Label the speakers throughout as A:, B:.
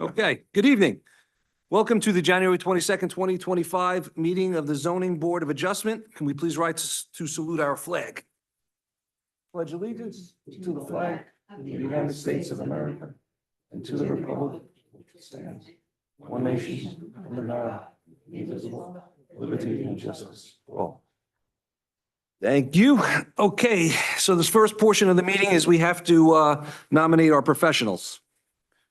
A: Okay, good evening. Welcome to the January twenty-second, twenty twenty-five meeting of the Zoning Board of Adjustment. Can we please rise to salute our flag? Pledge allegiance to the flag of the United States of America and to the republic which stands one nation under God, indivisible, liberty and justice for all. Thank you. Okay, so this first portion of the meeting is we have to uh, nominate our professionals.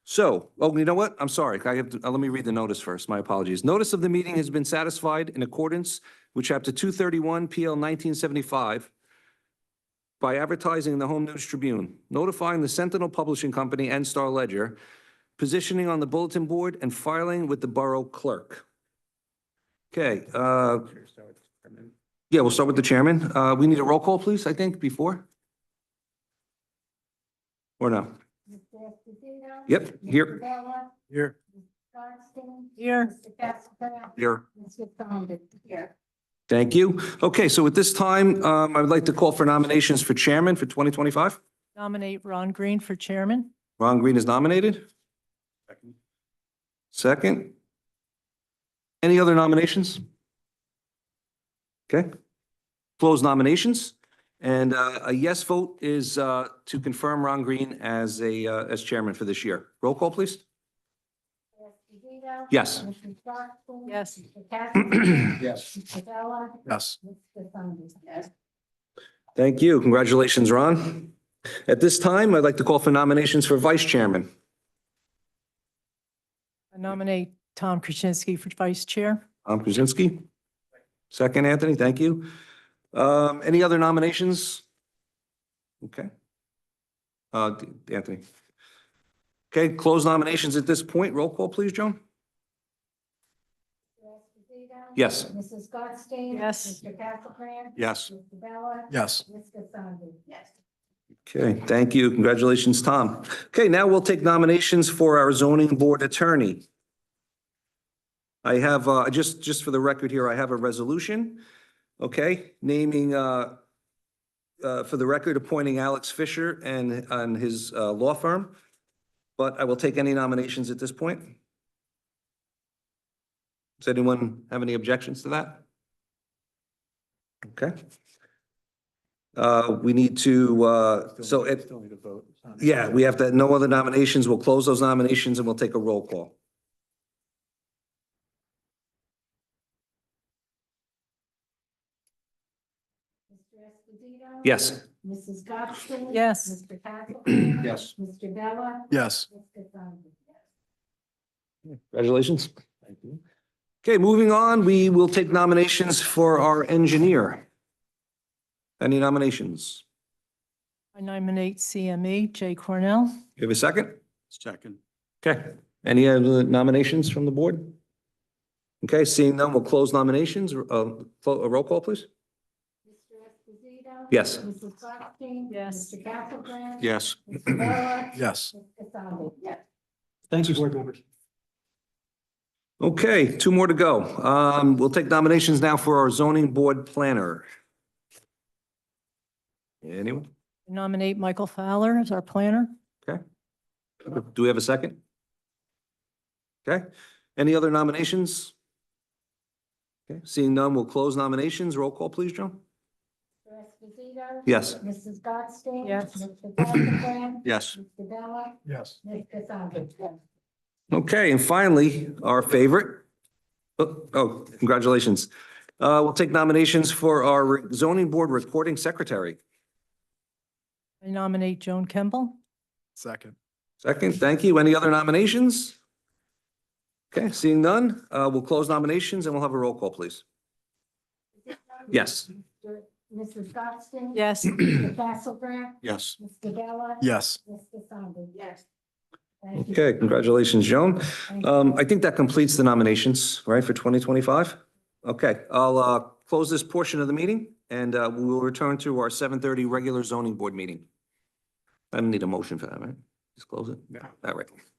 A: So, oh, you know what? I'm sorry. I have, to- uh, let me read the notice first. My apologies. Notice of the meeting has been satisfied in accordance with Chapter 231 PL 1975 by advertising in the Home News Tribune, notifying the Sentinel Publishing Company and Star Ledger, positioning on the bulletin board, and filing with the Borough Clerk. Okay, uh, yeah, we'll start with the chairman. Uh, We need a roll call, please, I think, before? Or no?
B: Mr. Esposito.
A: Yep, here.
B: Mr. Bella.
A: Here.
B: Johnson. Here. Mr. Castro.
A: Here.
B: Mr. Condit. Here.
A: Thank you. Okay, so at this time, um, I would like to call for nominations for chairman for 2025.
C: Nominate Ron Green for chairman.
A: Ron Green is nominated. Second. Any other nominations? Okay. Close nominations. And uh, a yes vote is uh, to confirm Ron Green as a, uh, as chairman for this year. Roll call, please.
B: Esposito.
A: Yes.
B: Mrs. Johnson.
C: Yes.
B: Mr. Castro.
A: Yes.
B: Mr. Bella.
A: Yes.
B: Mr. Condit. Yes.
A: Thank you. Congratulations, Ron. At this time, I'd like to call for nominations for vice chairman.
C: I nominate Tom Krasinski for vice chair.
A: Tom Krasinski. Second, Anthony, thank you. Um, any other nominations? Okay. Uh, D- Anthony. Okay, close nominations at this point. Roll call, please, Joan?
B: Mr. Esposito.
A: Yes.
B: Mrs. Gottstein.
C: Yes.
B: Mr. Castlebrand.
A: Yes.
B: Mr. Bella.
A: Yes.
B: Mr. Condit. Yes.
A: Okay, thank you. Congratulations, Tom. Okay, now we'll take nominations for our zoning board attorney. I have, uh, just, just for the record here, I have a resolution, okay, naming, uh, uh, for the record, appointing Alex Fisher and, and his, uh, law firm. But I will take any nominations at this point. Does anyone have any objections to that? Okay. Uh, we need to, uh, so it.
D: Still need a vote. It's not-
A: Yeah, we have to, no other nominations. We'll close those nominations and we'll take a roll call.
B: Mr. Esposito.
A: Yes.
B: Mrs. Gottstein.
C: Yes.
B: Mr. Castlebrand.
D: Yes.
B: Mr. Bella.
D: Yes.
B: Mr. Condit. Yes.
A: Congratulations. Okay, moving on, we will take nominations for our engineer. Any nominations?
C: I nominate CME Jay Cornell.
A: You have a second?
D: Second.
A: Okay. Any other nominations from the board? Okay, seeing none, we'll close nominations. Uh, fo- a roll call, please.
B: Mr. Esposito.
A: Yes.
B: Mrs. Gottstein.
C: Yes.
B: Mr. Castlebrand.
D: Yes.
B: Mr. Bella.
D: Yes.
B: Mr. Condit. Yes.
D: Thank you, board members.
A: Okay, two more to go. Um, we'll take nominations now for our zoning board planner. Anyone?
C: I Nominate Michael Fowler as our planner.
A: Do we have a second? Okay, any other nominations? Okay, seeing none, we'll close nominations. Roll call, please, Joan?
B: Mr. Esposito.
A: Yes.
B: Mrs. Gottstein.
C: Yes.
B: Mr. Castlebrand.
D: Yes.
B: Mr. Bella.
D: Yes.
B: Mr. Condit. Yes.
A: Okay, and finally, our favorite. Oh, oh, congratulations. Uh, we'll take nominations for our zoning board recording secretary.
C: I nominate Joan Kemble.
D: Second.
A: Second, thank you. Any other nominations? Okay, seeing none, uh, we'll close nominations and we'll have a roll call, please. Yes.
B: Mr. Mrs. Gottstein.
C: Yes.
B: Mr. Castlebrand.
D: Yes.
B: Mr. Bella.
D: Yes.
B: Mr. Condit. Yes. Thank you.
A: Okay, congratulations, Joan.
B: Thank you.
A: Um, I think that completes the nominations, right, for twenty twenty-five? Okay, I'll, uh, close this portion of the meeting and, uh, we will return to our seven thirty regular zoning board meeting. I don't need a motion for that, right? Just close it?
D: No.
A: All right.